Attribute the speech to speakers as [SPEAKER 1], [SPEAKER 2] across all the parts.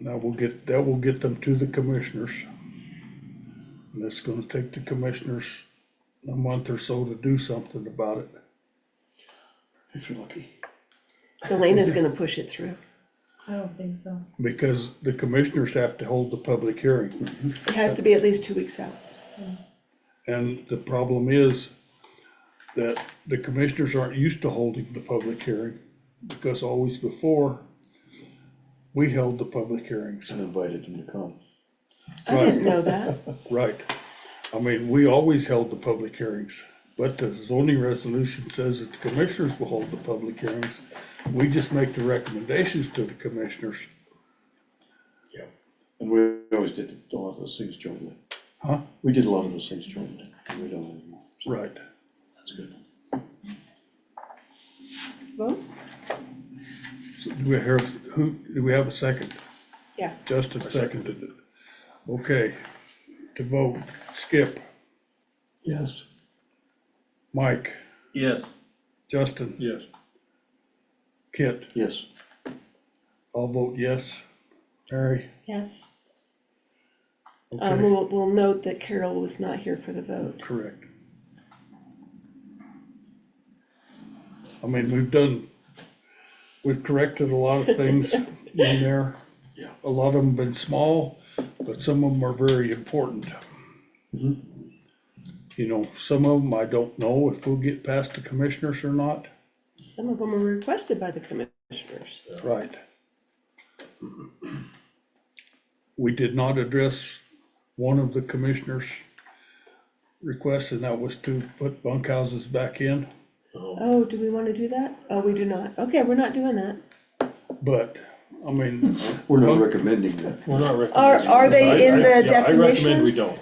[SPEAKER 1] Now we'll get, that will get them to the commissioners. And it's gonna take the commissioners a month or so to do something about it.
[SPEAKER 2] if you're lucky.
[SPEAKER 3] Elena's gonna push it through.
[SPEAKER 4] I don't think so.
[SPEAKER 1] Because the commissioners have to hold the public hearing.
[SPEAKER 3] It has to be at least two weeks out.
[SPEAKER 1] And the problem is that the commissioners aren't used to holding the public hearing because always before, we held the public hearings.
[SPEAKER 2] And invited them to come.
[SPEAKER 3] I didn't know that.
[SPEAKER 1] Right. I mean, we always held the public hearings, but the zoning resolution says that the commissioners will hold the public hearings. We just make the recommendations to the commissioners.
[SPEAKER 2] Yeah. And we always did a lot of those things jointly.
[SPEAKER 1] Huh?
[SPEAKER 2] We did a lot of those things jointly, and we don't anymore. So
[SPEAKER 1] Right.
[SPEAKER 2] That's good.
[SPEAKER 3] Vote?
[SPEAKER 1] So do we hear, who, do we have a second?
[SPEAKER 3] Yeah.
[SPEAKER 1] Justin seconded it. Okay. To vote, Skip,
[SPEAKER 2] Yes.
[SPEAKER 1] Mike,
[SPEAKER 5] Yes.
[SPEAKER 1] Justin,
[SPEAKER 5] Yes.
[SPEAKER 1] Kit,
[SPEAKER 2] Yes.
[SPEAKER 1] all vote yes. Harry?
[SPEAKER 3] Yes. Um,
[SPEAKER 1] Okay,
[SPEAKER 3] we'll, we'll note that Carol was not here for the vote.
[SPEAKER 1] correct. I mean, we've done, we've corrected a lot of things in there.
[SPEAKER 2] Yeah.
[SPEAKER 1] A lot of them been small, but some of them are very important. You know, some of them I don't know if we'll get past the commissioners or not.
[SPEAKER 3] Some of them were requested by the commissioners.
[SPEAKER 1] Right. We did not address one of the commissioners' requests, and that was to put bunkhouses back in.
[SPEAKER 3] Oh, do we wanna do that? Oh, we do not. Okay, we're not doing that.
[SPEAKER 1] But, I mean,
[SPEAKER 2] We're not recommending that.
[SPEAKER 5] We're not recommending.
[SPEAKER 3] Are, are they in
[SPEAKER 5] I- I-
[SPEAKER 3] the
[SPEAKER 5] yeah,
[SPEAKER 3] definitions?
[SPEAKER 5] I recommend we don't.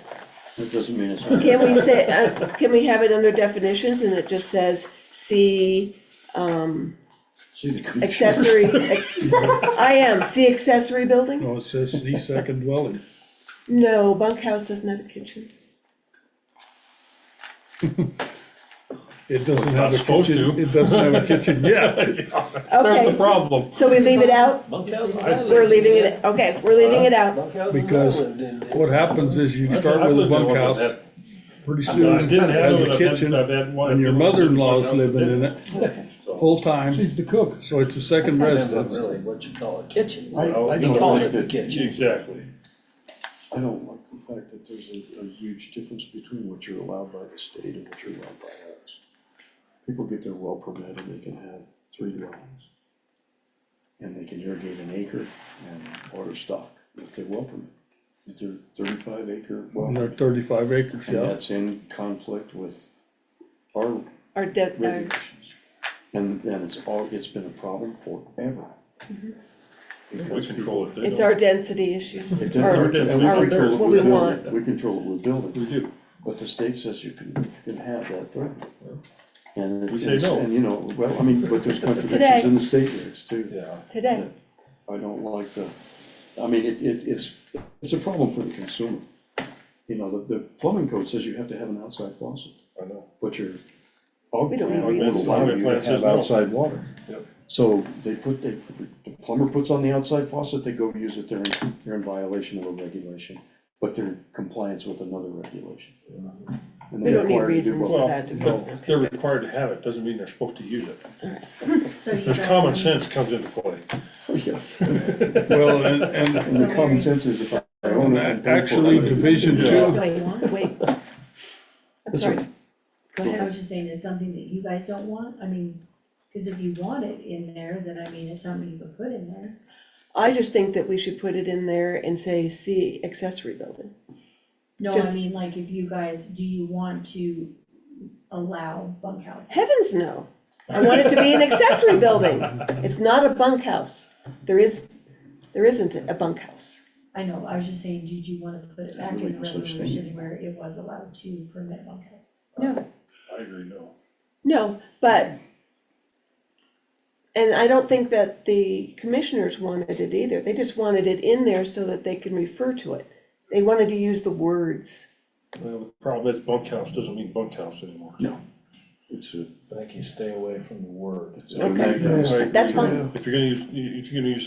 [SPEAKER 2] That doesn't mean it's not.
[SPEAKER 3] Can we say, uh, can we have it under definitions and it just says, see
[SPEAKER 2] See the commissioner.
[SPEAKER 3] accessory? I am, see accessory building?
[SPEAKER 1] no, it says the second dwelling.
[SPEAKER 3] No, bunkhouse doesn't have a kitchen.
[SPEAKER 1] It doesn't
[SPEAKER 5] It's not
[SPEAKER 1] have a
[SPEAKER 5] supposed
[SPEAKER 1] kitchen,
[SPEAKER 5] to.
[SPEAKER 1] it doesn't have a kitchen yet.
[SPEAKER 5] There's the
[SPEAKER 3] Okay,
[SPEAKER 5] problem.
[SPEAKER 3] so we leave it out? We're
[SPEAKER 6] We're
[SPEAKER 3] leaving it, okay, we're leaving it out.
[SPEAKER 1] Because What happens is you start with a bunkhouse, pretty soon
[SPEAKER 5] I
[SPEAKER 1] it
[SPEAKER 5] didn't have
[SPEAKER 1] has
[SPEAKER 5] one,
[SPEAKER 1] a
[SPEAKER 5] I've had,
[SPEAKER 1] kitchen,
[SPEAKER 5] I've had one.
[SPEAKER 1] and your mother-in-law's
[SPEAKER 5] I've had
[SPEAKER 1] living in
[SPEAKER 5] one.
[SPEAKER 1] it, full-time,
[SPEAKER 6] She's the cook.
[SPEAKER 1] so it's a second residence.
[SPEAKER 6] Really, what you call a kitchen.
[SPEAKER 2] I, I
[SPEAKER 6] You
[SPEAKER 2] don't
[SPEAKER 6] call
[SPEAKER 2] like
[SPEAKER 6] it the
[SPEAKER 2] that,
[SPEAKER 6] kitchen.
[SPEAKER 5] Exactly.
[SPEAKER 2] I don't like the fact that there's a, a huge difference between what you're allowed by the state and what you're allowed by us. People get their well permit and they can have three dwellings. And they can irrigate an acre and order stock with their well permit, with their thirty-five acre well.
[SPEAKER 1] And they're
[SPEAKER 2] permit.
[SPEAKER 1] thirty-five acres,
[SPEAKER 2] And
[SPEAKER 1] yeah.
[SPEAKER 2] that's in conflict with our
[SPEAKER 3] Our de- our
[SPEAKER 2] regulations. And, and it's all, it's been a problem forever.
[SPEAKER 5] We
[SPEAKER 2] Because
[SPEAKER 5] control it. They
[SPEAKER 3] It's
[SPEAKER 5] don't.
[SPEAKER 3] our density issues.
[SPEAKER 2] It
[SPEAKER 3] Our-
[SPEAKER 2] does,
[SPEAKER 5] our-
[SPEAKER 2] and we
[SPEAKER 5] our-
[SPEAKER 2] control
[SPEAKER 3] what
[SPEAKER 2] what
[SPEAKER 3] we
[SPEAKER 2] we're
[SPEAKER 3] want.
[SPEAKER 2] building, we control what we're
[SPEAKER 5] We
[SPEAKER 2] building,
[SPEAKER 5] do.
[SPEAKER 2] but the state says you can, you can have that thing. And, it-
[SPEAKER 5] We say
[SPEAKER 2] and,
[SPEAKER 5] no.
[SPEAKER 2] and you know, well, I mean, but there's
[SPEAKER 3] Today.
[SPEAKER 2] contradictions in the state lyrics too.
[SPEAKER 5] Yeah.
[SPEAKER 3] Today,
[SPEAKER 2] I don't like the, I mean, it, it, it's, it's a problem for the consumer. You know, the, the plumbing code says you have to have an outside faucet,
[SPEAKER 5] I know.
[SPEAKER 2] but your og
[SPEAKER 3] We don't
[SPEAKER 2] plan
[SPEAKER 3] want
[SPEAKER 2] won't
[SPEAKER 3] reasons.
[SPEAKER 2] allow
[SPEAKER 5] Plumbing
[SPEAKER 2] you
[SPEAKER 5] plan
[SPEAKER 2] to
[SPEAKER 5] says
[SPEAKER 2] have
[SPEAKER 5] no.
[SPEAKER 2] outside water.
[SPEAKER 5] Yep.
[SPEAKER 2] So they put, they, the plumber puts on the outside faucet, they go use it, they're in, they're in violation of a regulation, but they're in compliance with another regulation. And
[SPEAKER 3] we
[SPEAKER 2] they're
[SPEAKER 3] don't need
[SPEAKER 2] required to do
[SPEAKER 3] reasons
[SPEAKER 2] both.
[SPEAKER 3] for
[SPEAKER 5] Well,
[SPEAKER 3] that to be.
[SPEAKER 5] but if they're required to have it, doesn't mean they're supposed to use it.
[SPEAKER 4] So you
[SPEAKER 5] There's
[SPEAKER 4] got-
[SPEAKER 5] common sense comes into play.
[SPEAKER 2] Yeah.
[SPEAKER 1] Well, and, and
[SPEAKER 2] And the common sense is if I own it, I'm paying for it.
[SPEAKER 1] Actually, division
[SPEAKER 5] Yeah.
[SPEAKER 1] two,
[SPEAKER 3] Wait, wait. I'm
[SPEAKER 2] That's
[SPEAKER 3] sorry.
[SPEAKER 2] right.
[SPEAKER 3] Go
[SPEAKER 4] I
[SPEAKER 3] ahead.
[SPEAKER 4] was just saying, is something that you guys don't want, I mean, cause if you want it in there, then I mean, it's something you could put in there.
[SPEAKER 3] I just think that we should put it in there and say, see accessory building.
[SPEAKER 4] No, I
[SPEAKER 3] Just-
[SPEAKER 4] mean, like, if you guys, do you want to allow bunkhouses?
[SPEAKER 3] Heavens no. I want it to be an accessory building. It's not a bunkhouse. There is, there isn't a bunkhouse.
[SPEAKER 4] I know, I was just saying, did you wanna put it
[SPEAKER 2] There's
[SPEAKER 4] back in
[SPEAKER 2] really
[SPEAKER 4] the
[SPEAKER 2] no such thing.
[SPEAKER 4] resolution where it was allowed to permit bunkhouses?
[SPEAKER 3] No.
[SPEAKER 5] I agree, no.
[SPEAKER 3] No, but, and I don't think that the commissioners wanted it either. They just wanted it in there so that they can refer to it. They wanted to use the words.
[SPEAKER 5] Well, the problem is bunkhouse doesn't mean bunkhouse anymore.
[SPEAKER 2] It's a,
[SPEAKER 6] I think you stay away from the word.
[SPEAKER 2] it's a.
[SPEAKER 5] I agree.
[SPEAKER 3] That's fine.
[SPEAKER 5] If you're gonna use, if you're gonna use